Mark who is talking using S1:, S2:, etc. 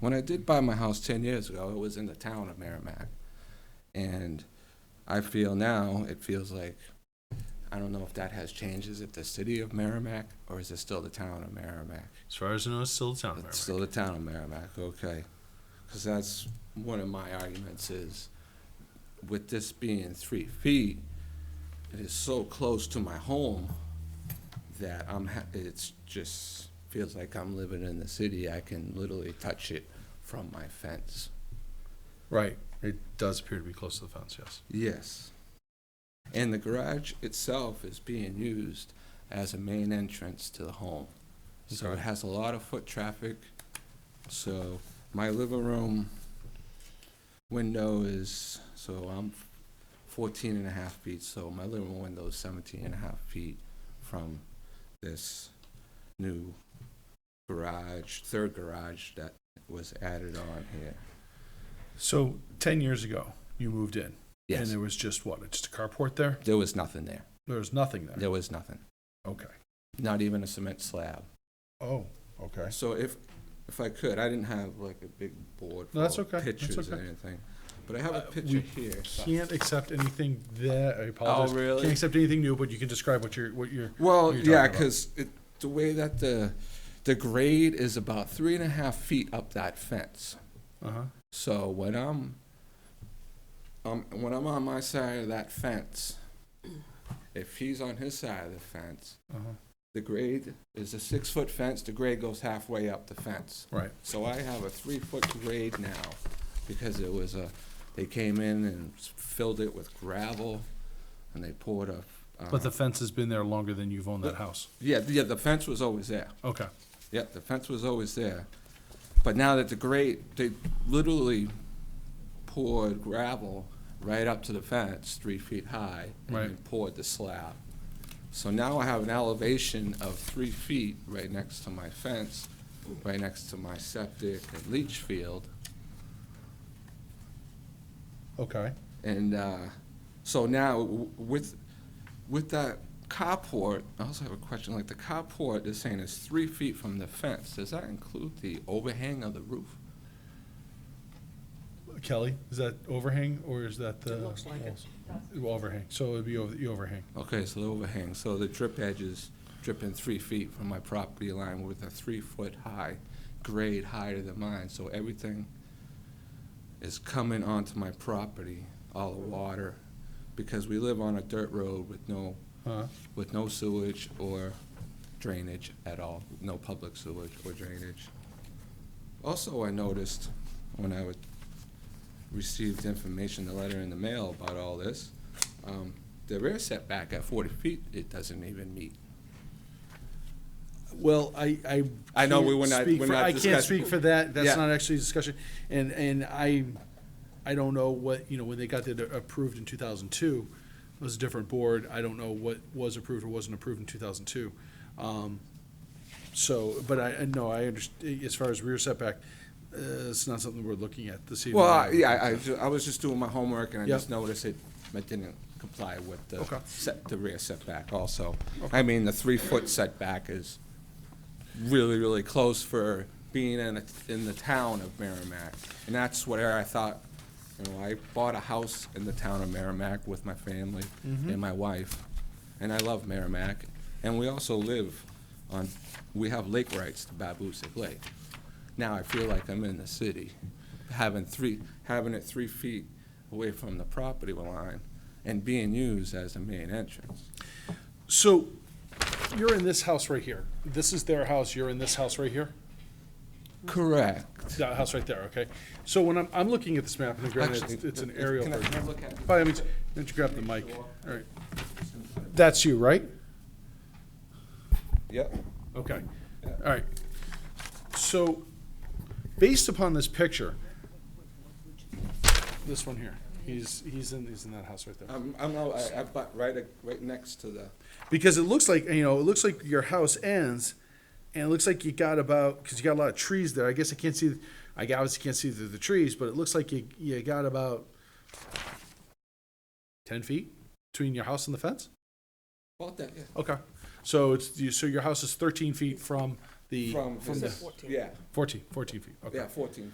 S1: When I did buy my house 10 years ago, it was in the town of Merrimack. And I feel now, it feels like, I don't know if that has changed. Is it the city of Merrimack or is it still the town of Merrimack?
S2: As far as I know, it's still the town of
S1: It's still the town of Merrimack, okay. Because that's one of my arguments is, with this being three feet, it is so close to my home that I'm, ha- it's just, feels like I'm living in the city. I can literally touch it from my fence.
S2: Right. It does appear to be close to the fence, yes.
S1: Yes. And the garage itself is being used as a main entrance to the home. So it
S2: Okay.
S1: has a lot of foot traffic. So my living room window is, so I'm 14 and a half feet, so my living room window is 17 and a half feet from this new garage, third garage that was added on here.
S3: So ten years ago, you moved in, and
S1: Yes,
S3: there was just what? Just a carport there.
S1: there was nothing there.
S3: There was nothing there.
S1: There was nothing.
S3: Okay.
S1: Not even a cement slab.
S3: Oh, okay.
S1: So if, if I could, I didn't have like a big board
S3: No, that's
S1: full
S3: okay.
S1: of
S3: That's
S1: pictures or
S3: okay.
S1: anything, but I have a
S3: Uh,
S1: picture
S3: we
S1: here.
S3: Can't accept anything there. I apologize.
S1: Oh, really?
S3: Can't accept anything new, but you can describe what you're what you're.
S1: Well,
S3: what you're
S1: yeah,
S3: talking about.
S1: because the way that the, the grade is about three and a half feet up that fence.
S3: Uh-huh.
S1: So when I'm, um, when I'm on my side of that fence, if he's on his side of the fence,
S3: Uh-huh.
S1: the grade is a six-foot fence, the grade goes halfway up the fence.
S3: Right.
S1: So I have a three-foot grade now, because it was a, they came in and s- filled it with gravel, and they poured a. uh,
S3: But the fence has been there longer than you've owned that
S1: The-
S3: house.
S1: Yeah, the- yeah, the fence was always there.
S3: Okay.
S1: Yep, the fence was always there. But now that the grade, they literally poured gravel right up to the fence, three feet high, and then
S3: Right.
S1: poured the slab. So now I have an elevation of three feet right next to my fence, right next to my septic and leach field.
S3: Okay.
S1: And uh, so now w- with, with that carport, I also have a question, like the carport is saying it's three feet from the fence. Does that include the overhang of the roof?
S3: Kelly, is that overhang or is that the?
S4: It looks like it.
S3: walls? Overhang. So it'd be over the overhang.
S1: Okay, so the overhang, so the drip edge is dripping three feet from my property line with a three-foot-high grade higher than mine, so everything is coming onto my property, all the water, because we live on a dirt road with no,
S3: Uh-huh.
S1: with no sewage or drainage at all, no public sewage or drainage. Also, I noticed when I would, received information, the letter in the mail about all this, um, the rear setback at forty feet, it doesn't even meet.
S3: Well, I, I.
S1: I know we
S3: can't
S1: were not-
S3: speak
S1: we're
S3: for-
S1: not
S3: I can't
S1: discuss-
S3: speak for that,
S1: Yeah.
S3: that's not actually a discussion, and, and I, I don't know what, you know, when they got that approved in two thousand two, it was a different board, I don't know what was approved or wasn't approved in two thousand two. Um, So, but I, I know, I understand, as far as rear setback, uh, it's not something we're looking at this evening.
S1: Well, I- yeah, I- I, ju- I was just doing my homework and I
S3: Yeah.
S1: just noticed it, it didn't comply with the
S3: Okay.
S1: set, the rear setback also. I mean, the three-foot setback is really, really close for being in, a- in the town of Merrimack. And that's where I thought, you know, I bought a house in the town of Merrimack with my family and my wife. And I love Merrimack. And we also live on, we have lake rights to Babusick Lake. Now I feel like I'm in the city, having three, having it three feet away from the property line and being used as a main entrance.
S3: So, you're in this house right here, this is their house, you're in this house right here?
S1: Correct.
S3: That house right there, okay. So when I'm, I'm looking at this map, and granted, it's-
S1: Actually,
S3: it's an
S1: if-
S3: aerial
S1: can I- can I
S3: version.
S1: look at it?
S3: By all means, why don't you grab the mic? All right. That's you, right?
S1: Yep.
S3: Okay. All right. So, based upon this picture, this one here, he's, he's in, he's in that house right there.
S1: I'm, I'm, not- I, I butt right, a- right next to the,
S3: because it looks like you know it looks like your house ends and it looks like you got about because you got a lot of trees there i guess i can't see i obviously can't see through the trees but it looks like you, you got about 10 feet between your house and the fence
S1: about that, yeah.
S3: okay so it's you so your house is 13 feet from
S5: the
S1: From, from,
S6: Is it
S1: the-
S6: 14?
S1: yeah,
S3: 14, 14 feet, okay.
S1: yeah, fourteen feet.